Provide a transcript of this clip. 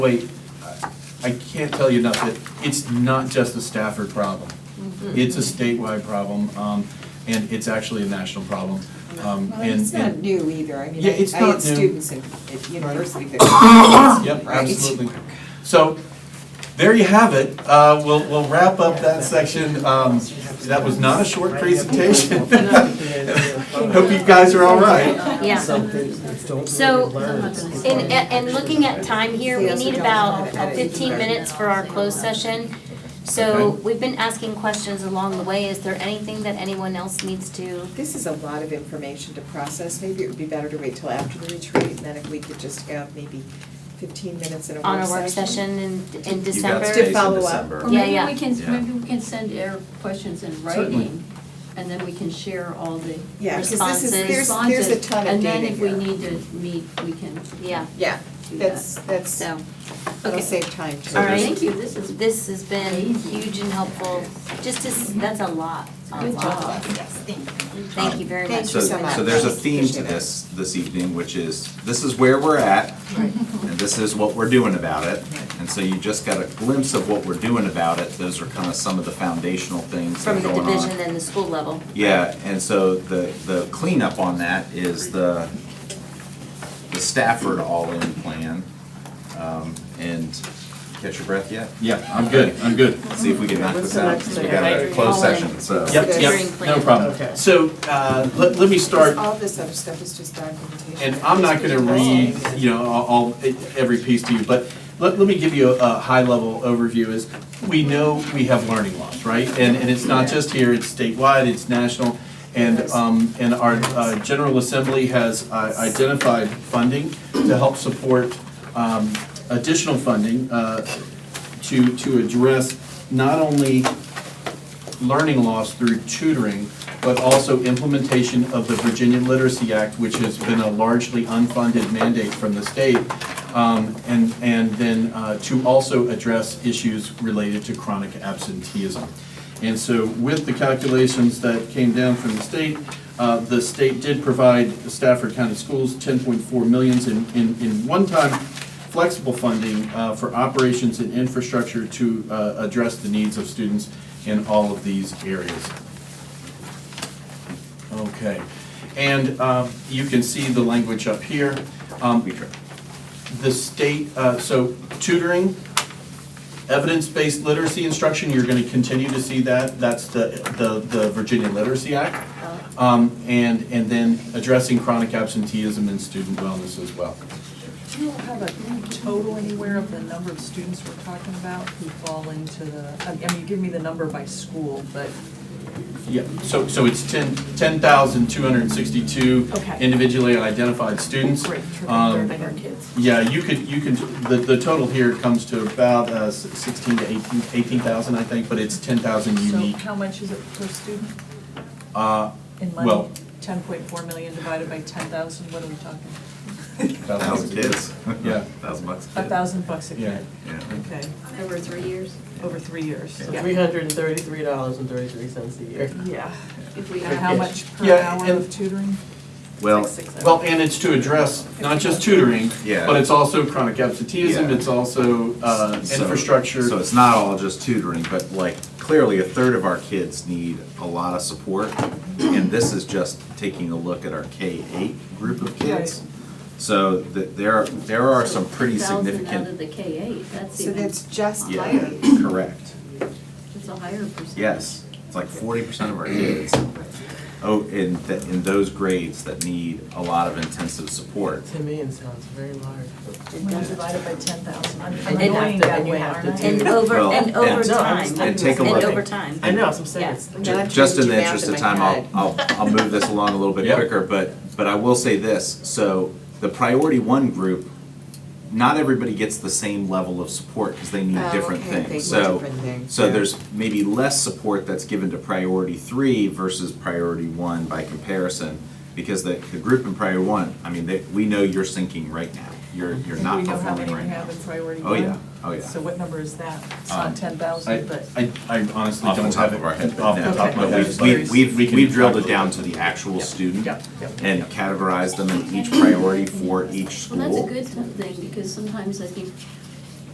Wait, I I can't tell you enough that it's not just a Stafford problem. Mm-hmm. It's a statewide problem, um, and it's actually a national problem. Um, Well, and- it's not and- new either, I mean, Yeah, it's I- I not had new. students in, at university that. Yep, Right. absolutely. So, there you have it. Uh, We'll, we'll wrap up that section. Um, That was not a short presentation. Hope you guys are all right. Yeah, so, and, and looking at time here, we need about fifteen minutes for our closed session. So Okay. we've been asking questions along the way, is there anything that anyone else needs to? This is a lot of information to process, maybe it would be better to wait till after the retreat, and then if we could just have maybe fifteen minutes in a On work a work session. session in, in You December? got space To in follow up. December. Or Yeah, maybe yeah. we can, Yeah. maybe we can send our questions in Certainly. writing, and then we can share all the Yeah, because this is, Responses. there's, responses. there's a ton of data And then here. if we need to meet, we can Yeah, Yeah, do that's, that. that's, so, that'll okay. save time too. All right. Thank you, this is. This has been huge and helpful, just as, that's a lot, a Good lot. job. Thank you very Thank much. So, you so much. so there's a theme to Appreciate it. this, this evening, which is, this is where we're at, and this is what we're doing about it. And so you just got a glimpse of what we're doing about it, those are kind of some of the foundational things that From are the going on. division and the school level. Yeah, and so the, the cleanup on that is the, the Stafford all-in plan. Um, And, catch your breath yet? Yeah, I'm good, I'm good. See if we can knock What's this the out, next because we thing? got a closed All in. session, so. Yep, Hearing yep, plan. no problem. So, uh, let, let me start. Because all this other stuff is just documentation. And I'm not gonna read, you know, all, all- every piece to you, but let, let me give you a, a high-level overview is, we know we have learning loss, right? And, and it's not just here, it's statewide, it's national, and, um, and our, uh, General Assembly has uh, identified funding to help support, um, additional funding, uh, to, to address not only learning loss through tutoring, but also implementation of the Virginia Literacy Act, which has been a largely unfunded mandate from the state, um, and, and then uh, to also address issues related to chronic absenteeism. And so with the calculations that came down from the state, uh, the state did provide Stafford County Schools 10.4 millions in, in, in one-time flexible funding uh, for operations and infrastructure to uh, address the needs of students in all of these areas. Okay, and um, you can see the language up here. Um, We try. The state, uh, so tutoring, evidence-based literacy instruction, you're going to continue to see that. That's the, the the Virginia Literacy Act. Um, And, and then addressing chronic absenteeism and student wellness as well. Do you have a total anywhere of the number of students we're talking about who fall into the, I mean, you give me the number by school, but Yeah, so, so it's ten, ten thousand two hundred and sixty-two Okay. individually identified students. great, terrific, Um, third our kids. Yeah, you could, you could, the, the total here comes to about uh, s- sixteen to eighteen, eighteen thousand, I think, but it's ten thousand So unique. how much is it per student Uh, in Well- money? Ten point four million divided by ten thousand, what are we talking? Thousand kids. Yeah. Thousand bucks a kid. A thousand bucks a kid, Yeah. okay, Over three years, over three years, So yeah. three hundred and thirty-three dollars and thirty-three cents a year. Yeah, if we and have. how much per Yeah, hour and- of tutoring? Well, Well, and it's to address not just tutoring, Yeah. but it's also chronic absenteeism, Yeah. it's also, uh, So- infrastructure. So it's not all just tutoring, but like clearly a third of our kids need a lot of support. And this is just taking a look at our K eight group of kids. So th there, there are some pretty Thousand out of significant, the K eight, that's So even, that's that's just yeah, highlighted. correct, a higher percentage. yes. It's like forty percent of our kids, oh, in, th- in those grades that need a lot of intensive support. To me, it sounds very large. When I divide it by ten thousand, I'm And I'm you have annoying to- that and you way, have to aren't I? And over, Well, and and- over No, I'm time, just- and And take a look. over time. I know, that's what I'm saying, it's I'm not trying Just in to the do math interest of my time, head. I'll, I'll, I'll move this along a little bit Yep. quicker, but, but I will say this. So the priority one group, not everybody gets the same level of support because they need Oh, different okay, they things. need So, different things, so yeah. there's maybe less support that's given to priority three versus priority one by comparison. Because the, the group in priority one, I mean, they, we know you're sinking right now. You're, you're Do not we know how performing many right we now. have in priority Oh, one? yeah, oh, yeah. So what number is that? It's Um, not ten thousand, but. I, I I honestly Off the don't top have it of our head, but off the no, top of my but head, we've- but we've, we've, we can we've drilled it calculate down to the actual student Yep, yep. and categorized them in each priority for each Well, that's a school. good thing, because sometimes I think